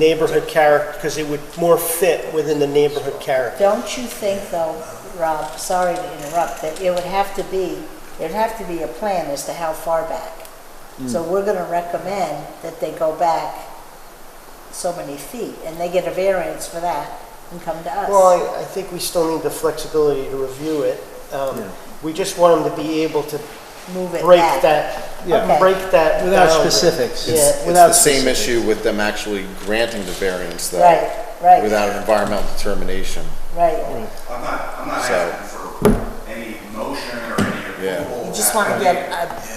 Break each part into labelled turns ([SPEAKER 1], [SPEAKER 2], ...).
[SPEAKER 1] neighborhood character, because it would more fit within the neighborhood character.
[SPEAKER 2] Don't you think though, Rob, sorry to interrupt, that it would have to be, there'd have to be a plan as to how far back? So we're gonna recommend that they go back so many feet, and they get a variance for that and come to us.
[SPEAKER 1] Well, I, I think we still need the flexibility to review it. Um,
[SPEAKER 3] Yeah.
[SPEAKER 1] We just want them to be able to
[SPEAKER 2] Move it
[SPEAKER 1] break
[SPEAKER 2] back.
[SPEAKER 1] that,
[SPEAKER 2] Yeah. Okay.
[SPEAKER 1] break that.
[SPEAKER 3] Without
[SPEAKER 1] boundary.
[SPEAKER 3] specifics.
[SPEAKER 1] Yeah,
[SPEAKER 3] It's-
[SPEAKER 4] It's
[SPEAKER 1] without
[SPEAKER 4] the same
[SPEAKER 1] specifics.
[SPEAKER 4] issue with them actually granting the variance though.
[SPEAKER 2] Right, right.
[SPEAKER 4] Without an environmental determination.
[SPEAKER 2] Right,
[SPEAKER 5] I'm not, I'm not
[SPEAKER 4] So-
[SPEAKER 5] asking for any motion or any
[SPEAKER 4] Yeah.
[SPEAKER 5] approval.
[SPEAKER 2] you just wanna get an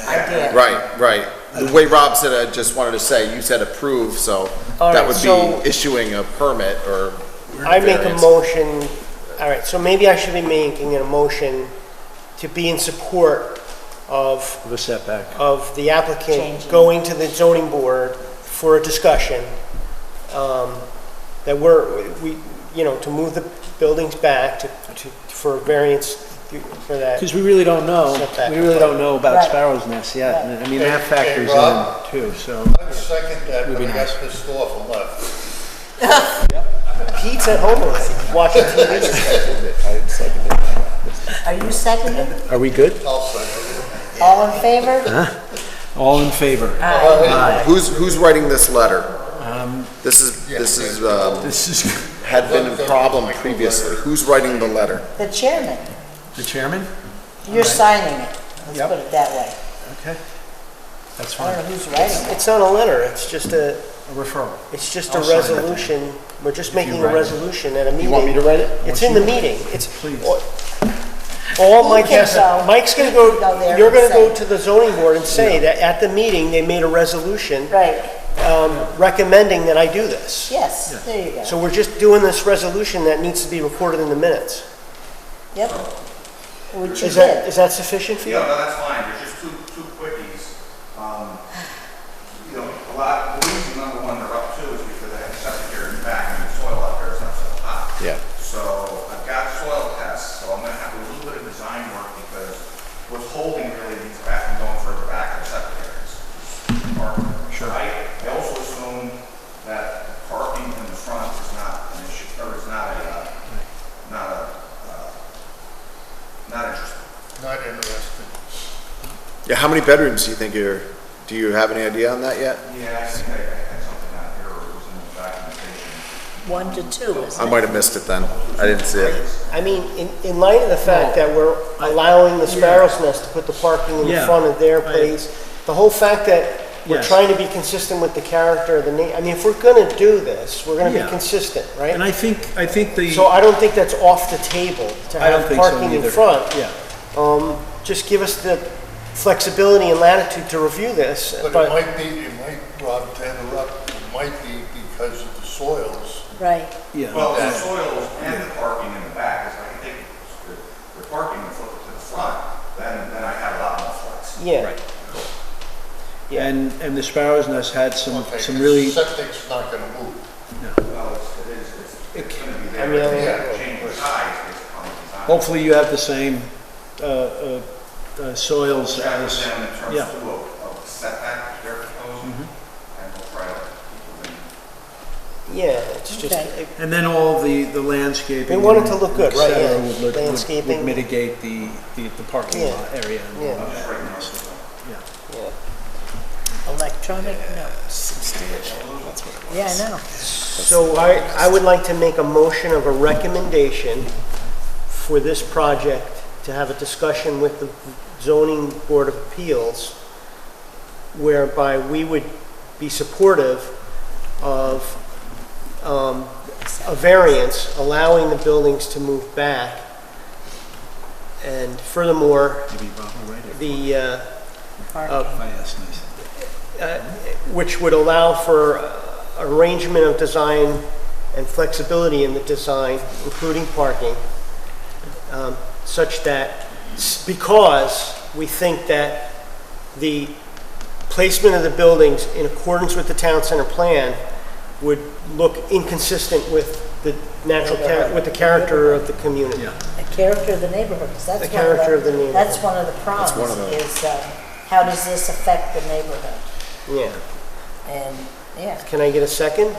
[SPEAKER 2] idea.
[SPEAKER 4] Right, right. The way Rob said, it, I just wanted to say, you said approve, so
[SPEAKER 1] All
[SPEAKER 4] that
[SPEAKER 1] right,
[SPEAKER 4] would
[SPEAKER 1] so-
[SPEAKER 4] be issuing a permit or
[SPEAKER 1] I make a
[SPEAKER 4] variance.
[SPEAKER 1] motion, all right, so maybe I should be making a motion to be in support of
[SPEAKER 3] of a setback.
[SPEAKER 1] of the applicant
[SPEAKER 2] Changing.
[SPEAKER 1] going to the zoning board for a discussion, um, that we're, we, you know, to move the buildings back to, to, for variance for that.
[SPEAKER 3] Because we really don't know,
[SPEAKER 1] Setback.
[SPEAKER 3] we really don't know about
[SPEAKER 2] Right.
[SPEAKER 3] Sparrow's Nest yet. and I mean, that factors
[SPEAKER 6] Hey, Rob?
[SPEAKER 3] in too, so.
[SPEAKER 6] I second that, but I got pissed off and left.
[SPEAKER 1] Pete's at home already, watching TV.
[SPEAKER 2] Are you seconding?
[SPEAKER 3] Are we good?
[SPEAKER 2] All in favor?
[SPEAKER 3] All in favor?
[SPEAKER 4] Who's, who's writing this letter? This is, this is, um,
[SPEAKER 3] This is
[SPEAKER 4] had been a problem previously. Who's writing the letter?
[SPEAKER 2] The chairman,
[SPEAKER 3] the chairman?
[SPEAKER 2] you're signing it, let's
[SPEAKER 3] Yep.
[SPEAKER 2] put it that way.
[SPEAKER 3] Okay. That's
[SPEAKER 2] I don't
[SPEAKER 3] fine.
[SPEAKER 2] know who's writing it.
[SPEAKER 1] It's not a letter, it's just a,
[SPEAKER 3] A referral.
[SPEAKER 1] it's just a
[SPEAKER 3] I'll sign it.
[SPEAKER 1] resolution, we're just making a
[SPEAKER 3] write it.
[SPEAKER 1] resolution at a meeting.
[SPEAKER 4] want me to write it?
[SPEAKER 1] It's in the meeting, it's.
[SPEAKER 3] Please.
[SPEAKER 1] All
[SPEAKER 2] You
[SPEAKER 1] Mike
[SPEAKER 2] can
[SPEAKER 1] has,
[SPEAKER 2] go.
[SPEAKER 1] Mike's gonna
[SPEAKER 2] You
[SPEAKER 1] go,
[SPEAKER 2] can go there
[SPEAKER 1] you're gonna
[SPEAKER 2] and
[SPEAKER 1] go
[SPEAKER 2] say.
[SPEAKER 1] to the zoning board and say that at the meeting, they made a resolution
[SPEAKER 2] Right,
[SPEAKER 1] um, recommending that I do this.
[SPEAKER 2] yes, there you go.
[SPEAKER 1] So we're just doing this resolution that needs to be recorded in the minutes.
[SPEAKER 2] Yep. Which you
[SPEAKER 1] Is that,
[SPEAKER 2] did.
[SPEAKER 1] is that sufficient for you?
[SPEAKER 5] Yeah, no, that's fine, there's just two, two quickies. Um, You know, a lot, the reason number one they're up to is because they have septic here in the back and the soil out there is not so hot.
[SPEAKER 4] Yeah.
[SPEAKER 5] So I've got soil tests, so I'm gonna have to do a little bit of design work because what's holding really means back and going further back in septic areas. Parking.
[SPEAKER 3] Sure.
[SPEAKER 5] I, I also assume that the parking in the front is not an issue, or is not a, uh, not a, uh, not interesting.
[SPEAKER 6] Not interested.
[SPEAKER 4] Yeah, how many bedrooms do you think you're, do you have any idea on that yet?
[SPEAKER 5] Yeah, I think I I had something out here, or it was in the documentation.
[SPEAKER 2] One to two, isn't
[SPEAKER 4] I might have missed it then. I didn't see it.
[SPEAKER 1] I mean, in, in light of the fact that we're allowing the Sparrow's Nest to put the parking in
[SPEAKER 3] Yeah.
[SPEAKER 1] front of their
[SPEAKER 3] I-
[SPEAKER 1] place, the whole fact that we're
[SPEAKER 3] Yes.
[SPEAKER 1] trying to be consistent with the character of the name, I mean, if we're gonna do this, we're gonna
[SPEAKER 3] Yeah.
[SPEAKER 1] be consistent,
[SPEAKER 3] And
[SPEAKER 1] right?
[SPEAKER 3] I think, I think the.
[SPEAKER 1] So I don't think that's off the table to
[SPEAKER 3] I don't
[SPEAKER 1] have
[SPEAKER 3] think so
[SPEAKER 1] parking in
[SPEAKER 3] either.
[SPEAKER 1] front.
[SPEAKER 3] Yeah.
[SPEAKER 1] Um, just give us the flexibility and latitude to review this,
[SPEAKER 6] But it
[SPEAKER 1] but
[SPEAKER 6] might be, it might, Rob, to interrupt, it might be because of the soils.
[SPEAKER 2] it? Right.
[SPEAKER 3] Yeah,
[SPEAKER 5] Well, the soils and the parking in the back, if I can take the- the parking and flip it to the front, then, then I have a lot more flex.
[SPEAKER 1] yeah. Yeah.
[SPEAKER 3] and, and the Sparrow's Nest had some,
[SPEAKER 6] Okay,
[SPEAKER 3] some really,
[SPEAKER 6] Septic's not gonna move.
[SPEAKER 5] Well, it's, it is, it's- it's gonna be
[SPEAKER 1] I mean, I-
[SPEAKER 5] there, It's gonna change the size based upon the design.
[SPEAKER 3] hopefully you have the same, uh, uh, uh, soils
[SPEAKER 5] Chat with
[SPEAKER 3] as,
[SPEAKER 5] them in terms
[SPEAKER 3] yeah.
[SPEAKER 5] too of, of setback they're proposing, and we'll try to keep them in
[SPEAKER 1] Yeah, it's just,
[SPEAKER 2] Okay.
[SPEAKER 3] and then all the, the landscaping.
[SPEAKER 1] We want it
[SPEAKER 3] and
[SPEAKER 1] to look good,
[SPEAKER 3] et
[SPEAKER 1] right,
[SPEAKER 3] cetera
[SPEAKER 1] yeah.
[SPEAKER 3] would look- would- Would
[SPEAKER 1] Landscaping.
[SPEAKER 3] mitigate the, the, the parking
[SPEAKER 1] Yeah.
[SPEAKER 3] lot area. and all
[SPEAKER 1] Yeah.
[SPEAKER 3] of that.
[SPEAKER 5] right now. so-
[SPEAKER 1] yeah.
[SPEAKER 2] Electronic notes. Yeah, I know.
[SPEAKER 1] So I, I would like to make a motion of a recommendation for this project to have a discussion with the zoning board of appeals whereby we would be supportive of, um, a variance allowing the buildings to move back. And furthermore,
[SPEAKER 3] Maybe Rob will write it
[SPEAKER 1] the, uh,
[SPEAKER 3] if I ask nicely.
[SPEAKER 1] which would allow for uh, arrangement of design and flexibility in the design, including parking, um, such that, because we think that the placement of the buildings in accordance with the town center plan would look inconsistent with the natural, char- with the character of the community.
[SPEAKER 3] Yeah.
[SPEAKER 2] The character of the neighborhood, 'cause that's
[SPEAKER 1] The
[SPEAKER 2] one of
[SPEAKER 1] character of the neighborhood.
[SPEAKER 2] That's one of the
[SPEAKER 4] one of
[SPEAKER 2] problems,
[SPEAKER 4] the-
[SPEAKER 2] is, uh, how does this affect the neighborhood?
[SPEAKER 1] Yeah.
[SPEAKER 2] And, yeah,
[SPEAKER 1] Can I get a second?